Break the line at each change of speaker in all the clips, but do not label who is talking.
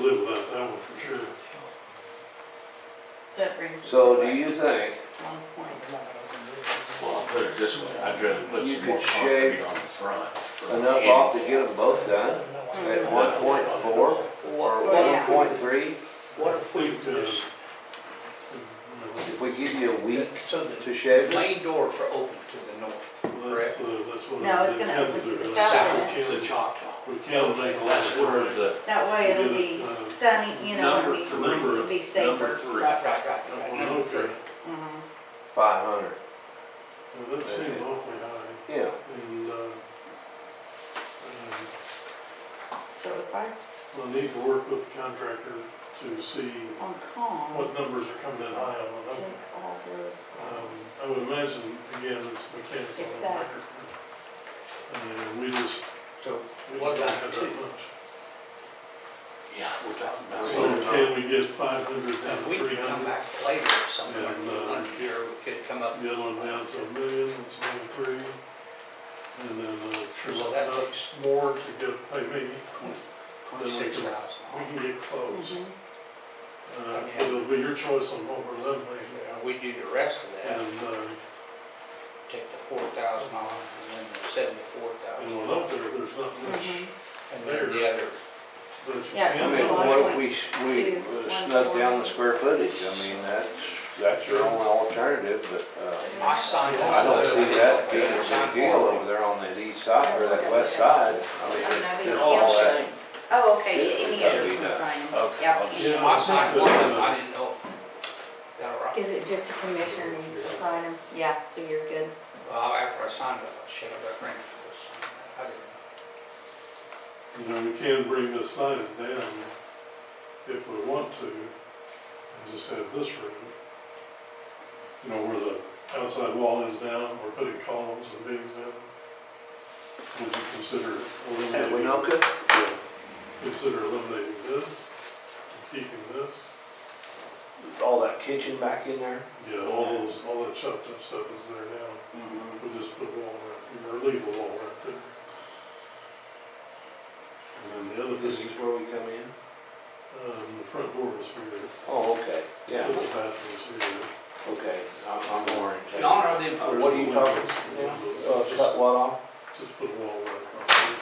number for sure.
So that brings it
So
to
do
like
you think
One point.
Well, I'll put it this way, I'd rather put
You
some more
could shave
concrete on the front. for
enough
the
off
end.
to get them both done
Mm.
at one point four or one
Yeah.
point three?
What if we
uh,
just,
If we give you a week
so
to
the
shave it?
main doors are open to the north,
That's, uh, that's what.
No, it's
they
gonna
have to
open
do.
to the
south
south
We
is the
can't-
Choctaw.
We can't make a lot
That's where
of.
the
That way it'll be
Uh,
sunny, you know,
number
it'll be,
three,
it'll be safer.
number three.
Right, right, right, right. Number three.
Okay,
Mhm.
Five hundred,
well, that seems awfully high,
yeah.
and, uh, um,
So if I,
We'll need to work with the contractor to see
on calm,
what numbers are coming in high on the
take
number.
all those.
uh,
Um, I would imagine, again, it's mechanical.
It's that.
And we just,
So
we
what
just don't
about
have
two?
that much.
Yeah, we're talking about.
So can we get five hundred down
If
to
we
three
could come
hundred?
back later somewhere,
And, uh,
one year, we could come up,
The other one down to a million, it's only three. And then, uh, trim
so
up
that
enough
takes
more to get, pay me,
twenty-six
we
thousand.
can get close.
Mhm.
Uh, but it'll be your choice on what we're leveling.
We do the rest of that,
And, uh,
take the four thousand off, and then the seventy-four thousand,
and when up there, there's not much.
Mhm.
and then the other,
But you
Yeah,
I
can't
mean,
make-
what if we, we snuck down the square footage? I mean, that's, that's your only alternative, but, uh,
I signed.
I don't see that being a big deal over there on the east side or that west side. I mean, it's all that.
Oh, okay, any
That'd
other
be nice.
sign,
Okay.
yeah.
Yeah.
I signed one, of them, I didn't know. Is that all right?
Is it just a commission needs to sign them? Yeah, so you're good.
Well, after I signed it, I should have been bringing this. I didn't.
You know, we can bring the size down if we want to, and just have this room. You know, where the outside wall is down, we're putting columns and beams in. Would you consider
At
eliminating?
Winoka?
Yeah. Consider eliminating this, keeping this,
All that kitchen back in there?
yeah, all those, all that chopped up stuff is there now. We'll just put a wall right, or leave a wall right there. And then the other thing.
where we come in?
Um, the front door is here.
Oh, okay, yeah,
The bathroom's here.
okay, I'm, I'm oriented.
In honor of them,
Uh, What are you talking, uh, cut what off?
Just put a wall right across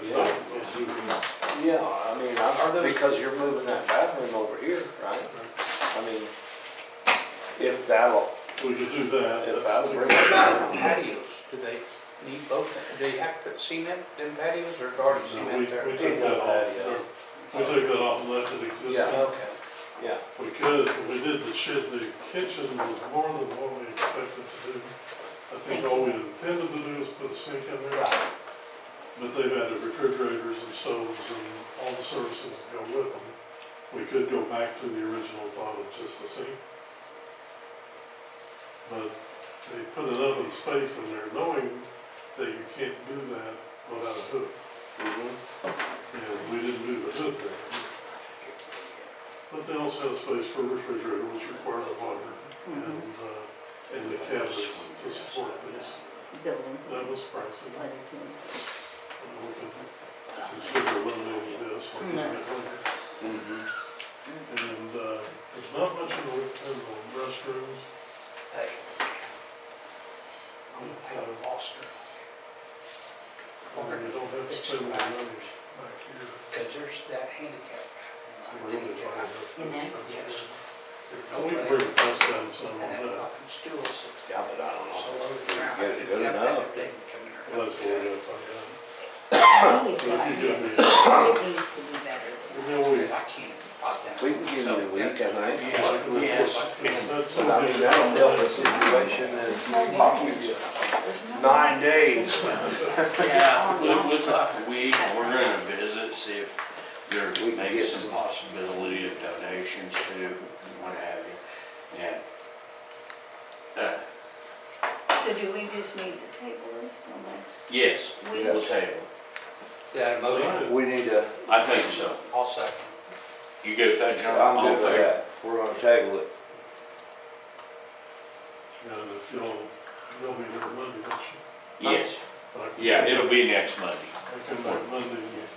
here.
Yeah. Yeah, I mean,
Are
I,
those-
because you're moving that bathroom over here, right? I mean, if that'll,
We could do that.
if
that's-
that'll bring it down.
patios, do they need both, do you have to put cement in patios or garden
No, We, we
cement there?
took that off, we took that off and left it
Yeah.
existing.
Okay,
Yeah,
We could, but we did the shit, the kitchen was more than what we expected to do. I think all we intended to do is put a sink in there,
right,
but they've added refrigerators and stoves and all the services that go with them. We could go back to the original thought of just a sink. But they put an oven space in there knowing that you can't do that without a hood. And we didn't do the hood there. But they also have space for refrigerator, which requires water
Mm-hmm.
and, uh, and the cabinets to support this.
Building,
That was pricey.
letter to.
And we could Consider eliminating this when we
No.
get later.
mhm.
And uh, there's not much in the in the restrooms.
hey. I'm gonna pay the Foster,
and You don't have to spend any money back here.
cause there's that handicap.
So
bathroom. I
we're
didn't
really
get
trying
out.
to-
Yes.
And we can bring the price down some on
And that
that.
fucking stool sits
Yeah, but I don't
so
know.
low to the ground.
Get it good
I didn't have
enough.
that thing come in there.
Well, that's what we're gonna find out.
We've got
If you give me-
this. It needs to be better.
You know, we.
I can't pop that.
We can give you the week, I think.
That's
But I mean,
something.
that'll help the situation and possibly
There's no-
nine days.
Yeah, we'll, we'll talk a week, and we're gonna visit, see if there
We can
may be
get
some
some-
possibility of donations to, what have you, yeah. Uh,
So do we just need to table this till next?
yes,
We-
we'll table,
Yeah, motion,
We need to,
I think so.
I'll second.
You go with that, John?
I'm
All in
good with
favor?
that. We're gonna table it.
And if you'll, you'll be there Monday, won't you?
Yes,
Like-
yeah, it'll be next Monday.
I come back Monday, and